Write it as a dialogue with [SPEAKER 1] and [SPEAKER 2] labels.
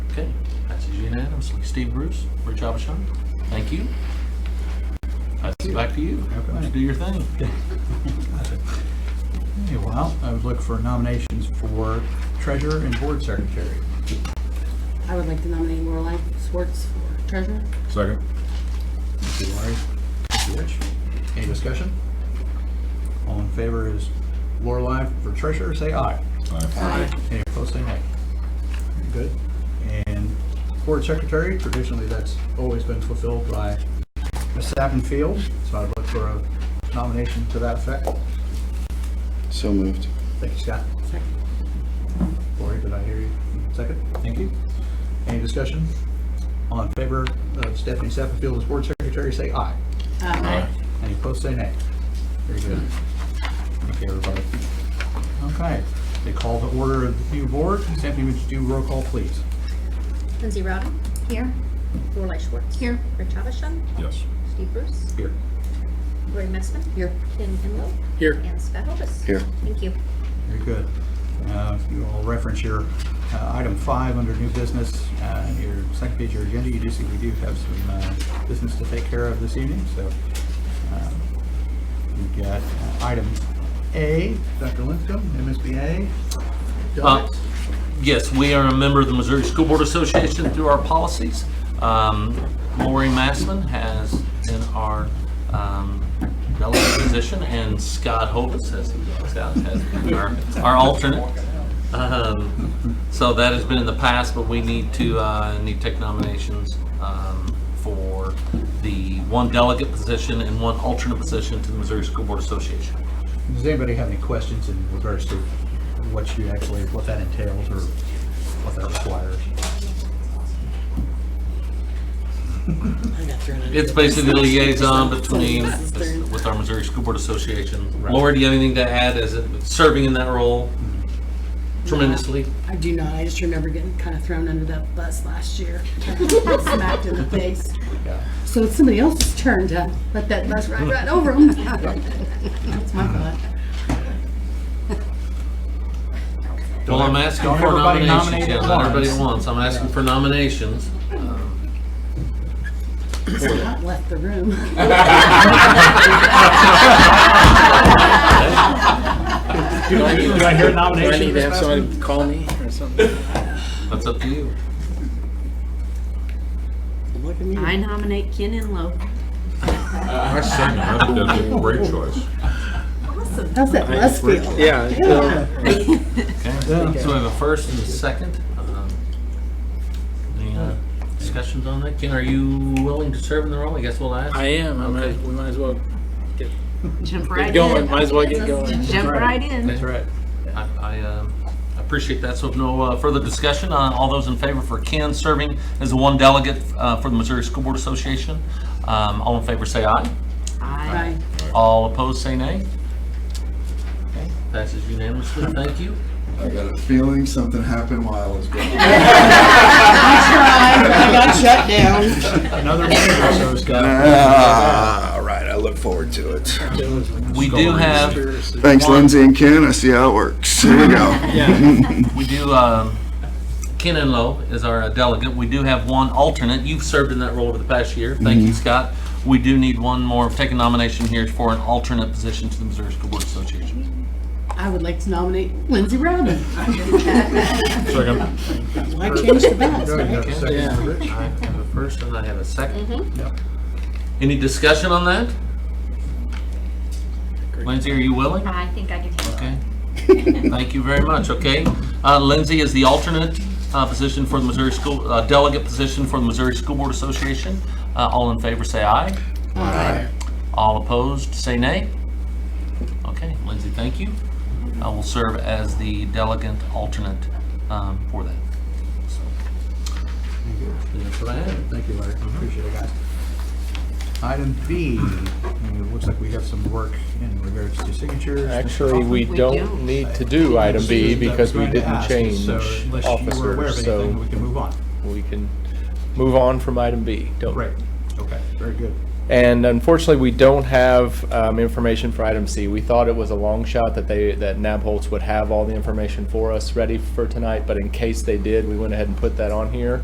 [SPEAKER 1] Okay, passes unanimously. Steve Bruce, Rich Abishon, thank you. Pass it back to you.
[SPEAKER 2] Okay.
[SPEAKER 1] Do your thing.
[SPEAKER 2] Okay, well, I would look for nominations for treasurer and board secretary.
[SPEAKER 3] I would like to nominate Lorelei Schwartz for treasurer.
[SPEAKER 4] Second.
[SPEAKER 2] Thank you, Lori. Thank you, Rich. Any discussion? All in favor is Lorelei for treasurer, say aye.
[SPEAKER 4] Aye.
[SPEAKER 2] Any opposed, say nay. Very Good. And board secretary, traditionally, that's always been fulfilled by Ms. Sappenfield, so I'd look for a nomination to that effect.
[SPEAKER 5] So moved.
[SPEAKER 2] Thank you, Scott.
[SPEAKER 3] Second.
[SPEAKER 2] Lori, did I hear you? Second? Thank you. Any discussion? All in favor of Stephanie Sappafield as board secretary, say aye.
[SPEAKER 3] Aye.
[SPEAKER 2] Any opposed, say nay. Very good. Thank you, everybody. Okay, they call the order of the new board. Stephanie, would you do roll call, please?
[SPEAKER 6] Lindsay Rowden. Here. Lorelei Schwartz. Here. Rich Abishon.
[SPEAKER 4] Yes.
[SPEAKER 6] Steve Bruce.
[SPEAKER 2] Here.
[SPEAKER 6] Lori Messman.
[SPEAKER 3] Here.
[SPEAKER 6] Ken Inlow.
[SPEAKER 1] Here.
[SPEAKER 6] And Scott Hovis.
[SPEAKER 5] Here.
[SPEAKER 6] Thank you.
[SPEAKER 2] Very good. Uh, If you all reference your uh, item five under new business, uh, your second page of your agenda, you do see we do have some uh, business to take care of this evening, so um, we've got uh, item A, Dr. Lindstrom, MSBA.
[SPEAKER 1] Uh, Yes, we are a member of the Missouri School Board Association through our policies. Um, Lori Massman has in our um, delegate position, and Scott Hovis, as he walks out, has been our- our alternate. Um, So that has been in the past, but we need to, uh, need to take nominations um, for the one delegate position and one alternate position to the Missouri School Board Association.
[SPEAKER 2] Does anybody have any questions in regards to what you actually, what that entails or what that requires?
[SPEAKER 3] I got thrown out.
[SPEAKER 1] It's basically the liaison between, with our Missouri School Board Association. Laura, do you have anything to add as it- serving in that role Mm-hmm. tremendously?
[SPEAKER 3] I do not. I just remember getting kind of thrown under that bus last year. Smacked in the face.
[SPEAKER 2] Yeah.
[SPEAKER 3] So it's somebody else's turn to let that bus ride right over them. That's my thought.
[SPEAKER 1] Well, I'm asking
[SPEAKER 2] Don't
[SPEAKER 1] for
[SPEAKER 2] everybody
[SPEAKER 1] nominations,
[SPEAKER 2] nominate
[SPEAKER 1] yeah,
[SPEAKER 2] at
[SPEAKER 1] not everybody at once,
[SPEAKER 2] once.
[SPEAKER 1] I'm asking for nominations.
[SPEAKER 3] Scott left the room.
[SPEAKER 2] Do I do I hear a nomination? Ms. Bassman?
[SPEAKER 5] call me or something?
[SPEAKER 1] That's up to you.
[SPEAKER 3] Look at me.
[SPEAKER 7] I nominate Ken Inlow.
[SPEAKER 4] I second that. That'd be a great choice.
[SPEAKER 3] How's that bus feel?
[SPEAKER 5] Yeah. so-
[SPEAKER 1] Okay, so we have a first and a second. Um, Any uh, discussions on that? Ken, are you willing to serve in the role? I guess we'll ask.
[SPEAKER 8] I am. I might, we might as well
[SPEAKER 7] Jump
[SPEAKER 8] get
[SPEAKER 7] right
[SPEAKER 8] going. Might
[SPEAKER 7] in.
[SPEAKER 8] as well get going.
[SPEAKER 7] Jump right in.
[SPEAKER 2] That's right.
[SPEAKER 1] I- I um, appreciate that. So if no uh, further discussion, uh, all those in favor for Ken serving as the one delegate uh, for the Missouri School Board Association, um, all in favor say aye.
[SPEAKER 3] Right.
[SPEAKER 1] All opposed say nay. Okay, Passes unanimously. Thank you.
[SPEAKER 4] I got a feeling something happened while I was gone.
[SPEAKER 2] Another minute or so, Scott.
[SPEAKER 5] Ah, All right, I look forward to it.
[SPEAKER 1] We do have,
[SPEAKER 5] Thanks, Lindsay and Ken. I see how it works. Here we go.
[SPEAKER 1] we do, um, Ken Enlow is our uh, delegate. We do have one alternate. You've served in that role over the past year. Thank you, Scott. We do need one more. Take a nomination here for an alternate position to the Missouri School Board Association.
[SPEAKER 3] I would like to nominate Lindsay Rowden.
[SPEAKER 4] Second.
[SPEAKER 3] Why change the bus,
[SPEAKER 2] Go ahead,
[SPEAKER 3] right?
[SPEAKER 2] have a second for Rich.
[SPEAKER 1] I have a first and I have a second.
[SPEAKER 2] Yep.
[SPEAKER 1] Any discussion on that? Lindsay, are you willing?
[SPEAKER 7] I think I can handle
[SPEAKER 1] Okay. Thank you very much, okay? Uh, Lindsay is the alternate uh, position for the Missouri School, uh, delegate position for the Missouri School Board Association. Uh, All in favor, say aye.
[SPEAKER 5] Aye.
[SPEAKER 1] All opposed, say nay. Okay, Lindsay, thank you. I will serve as the delegate alternate um, for that. So, That's what I have.
[SPEAKER 2] Thank you, Larry. Appreciate it, guys. Item B, and it looks like we have some work in regards to signatures.
[SPEAKER 9] Actually,
[SPEAKER 7] We
[SPEAKER 9] we
[SPEAKER 7] do.
[SPEAKER 9] don't need to do item B because we
[SPEAKER 2] Going to
[SPEAKER 9] didn't
[SPEAKER 2] ask,
[SPEAKER 9] change
[SPEAKER 2] so unless you were aware of
[SPEAKER 9] officers,
[SPEAKER 2] anything,
[SPEAKER 9] so
[SPEAKER 2] We can move on.
[SPEAKER 9] we can move on from item B. Don't-
[SPEAKER 2] Right. Okay, very good.
[SPEAKER 9] And unfortunately, we don't have um, information for item C. We thought it was a long shot that they, that Nabholz would have all the information for us ready for tonight, but in case they did, we went ahead and put that on here.